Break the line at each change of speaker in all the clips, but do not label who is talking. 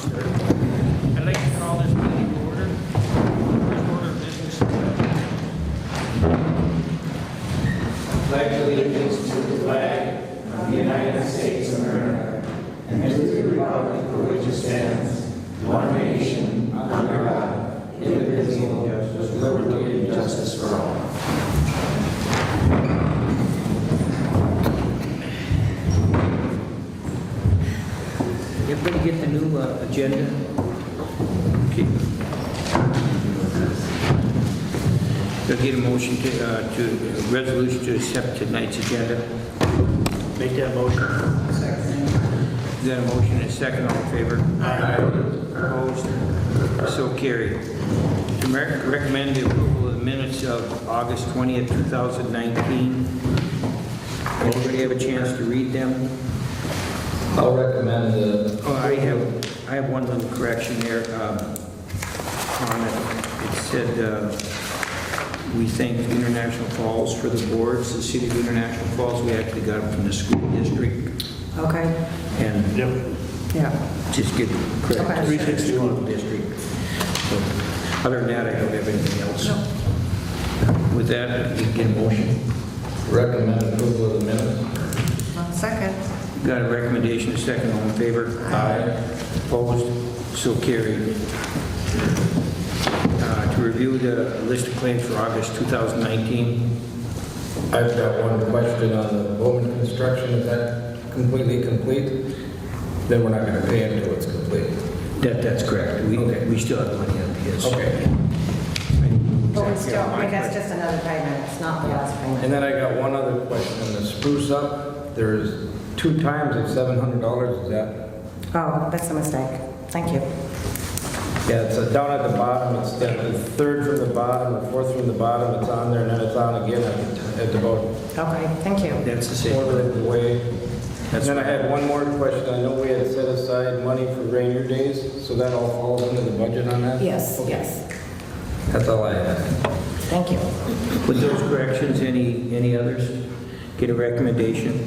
I'd like to call this meeting to order. First order of business.
pledge allegiance to the flag of the United States of America and to the republic for which it stands, one nation, under God, indivisible, with liberty and justice for all.
Everybody get the new uh, agenda? Okay. They'll get a motion to, uh, to, a resolution to accept tonight's agenda. Make that motion. Is that a motion and a second, all in favor? Aye. Opposed? So carried. To mer- Recommend the approval of the minutes of August 20th, 2019. Everybody have a chance to read them?
I'll recommend the,
Oh, I have, I have one little correction there, um, on it. It said, uh, we thank International Falls for the boards, the city of International Falls, we actually got them from the school district,
Okay,
and
yeah.
just get correct.
Okay.
Three sixty one. District. So, Other than that, I don't have anything else. With that, we can get a motion.
recommend approval of the minutes.
Second.
Got a recommendation, a second, all in favor? Aye. Opposed? So carried. Uh, To review the list of claims for August 2019,
I've got one question on the Bowman construction, is that completely complete? Then we're not gonna pay until it's complete.
that, that's correct. We, we still have money on his.
Okay.
But we still, wait, that's just another payment, it's not the last
And
payment.
then I got one other question, on the spruce up, there's two times of seven hundred dollars, is that?
Oh, that's a mistake. Thank you.
Yeah, it's uh, down at the bottom, it's the the third from the bottom, the fourth from the bottom, it's on there, and then it's on again at at about
Okay, thank you.
That's the same.
quarter of the way. And
That's-
then I had one more question. I know we had set aside money for rainier days, so that all falls into the budget on that?
Yes, yes,
That's all I had.
thank you.
With those corrections, any, any others? Get a recommendation?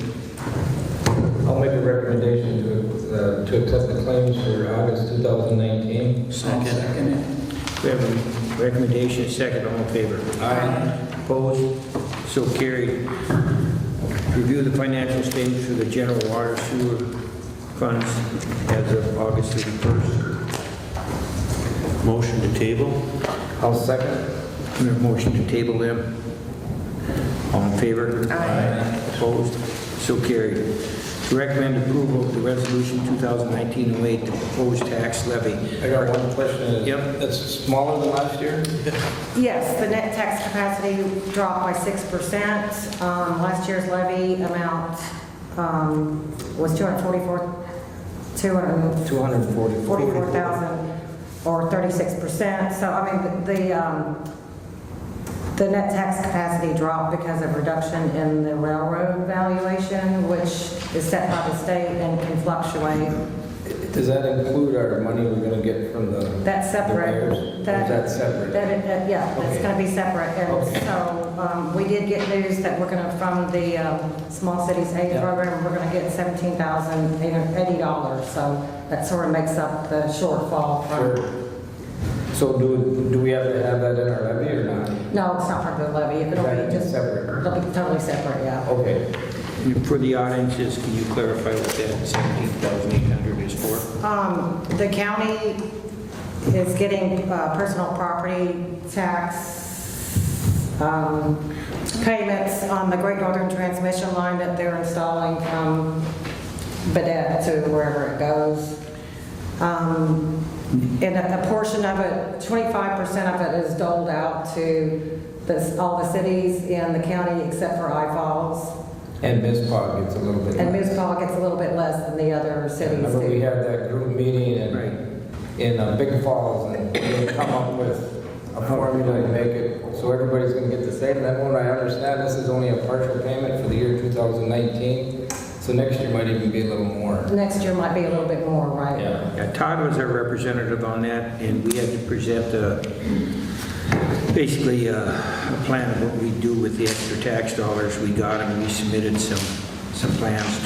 I'll make a recommendation to, uh, to accept the claims for August 2019.
We have a recommendation, a second, all in favor? Aye. Opposed? So carried. Review the financial statements for the general water sewer funds as of August 31st.
Motion to table?
I'll second.
We have a motion to table them. All in favor? Aye. Opposed? So carried. To recommend approval of the resolution 2019-08, the proposed tax levy.
I got one question.
Yep.
That's smaller than last year?
Yes, the net tax capacity dropped by 6%. Um, Last year's levy amount um, was 244, 200,
240.
44,000 or 36%. So, I mean, the- the, um, the net tax capacity dropped because of reduction in the railroad valuation, which is set by the state and can fluctuate.
Does that include our money we're gonna get from the?
That's
the buyers? Or
separate.
is
That-
that separate?
That, it- that- yeah, that's
Okay.
going to be separate. And so, um, we did get news that we're going to, from the um, Small Cities Aid
Yeah.
Program, we're going to get $17,080. So that sort of makes up the shortfall from
Or- So do, do we have to have that in our levy or not?
No, it's not part of the levy, it'll
Right,
be
it's
just,
separate.
it'll be totally separate, yeah.
Okay.
And For the audiences, can you clarify what that 17,800 is for?
Um, the county is getting, uh, personal property tax, um, payments on the Great Northern Transmission Line that they're installing from Bedette to wherever it goes. Um, and a a portion of it, 25% of it is doled out to the, all the cities in the county except for I Falls.
And Ms. Pog gets a little bit.
And
less.
Moose Paw gets a little bit less than the other cities
Remember, we
do.
had that group meeting in, in uh, Big Falls, and we come up with a formula to make it, so everybody's gonna get the same. And then when I understand, this is only a partial payment for the year 2019, so next year might even be a little more.
Next year might be a little bit more, right?
Yeah.
Yeah, uh, Todd was our representative on that, and we had to present uh, basically uh, a plan of what we do with the extra tax dollars we got, and we submitted some, some plans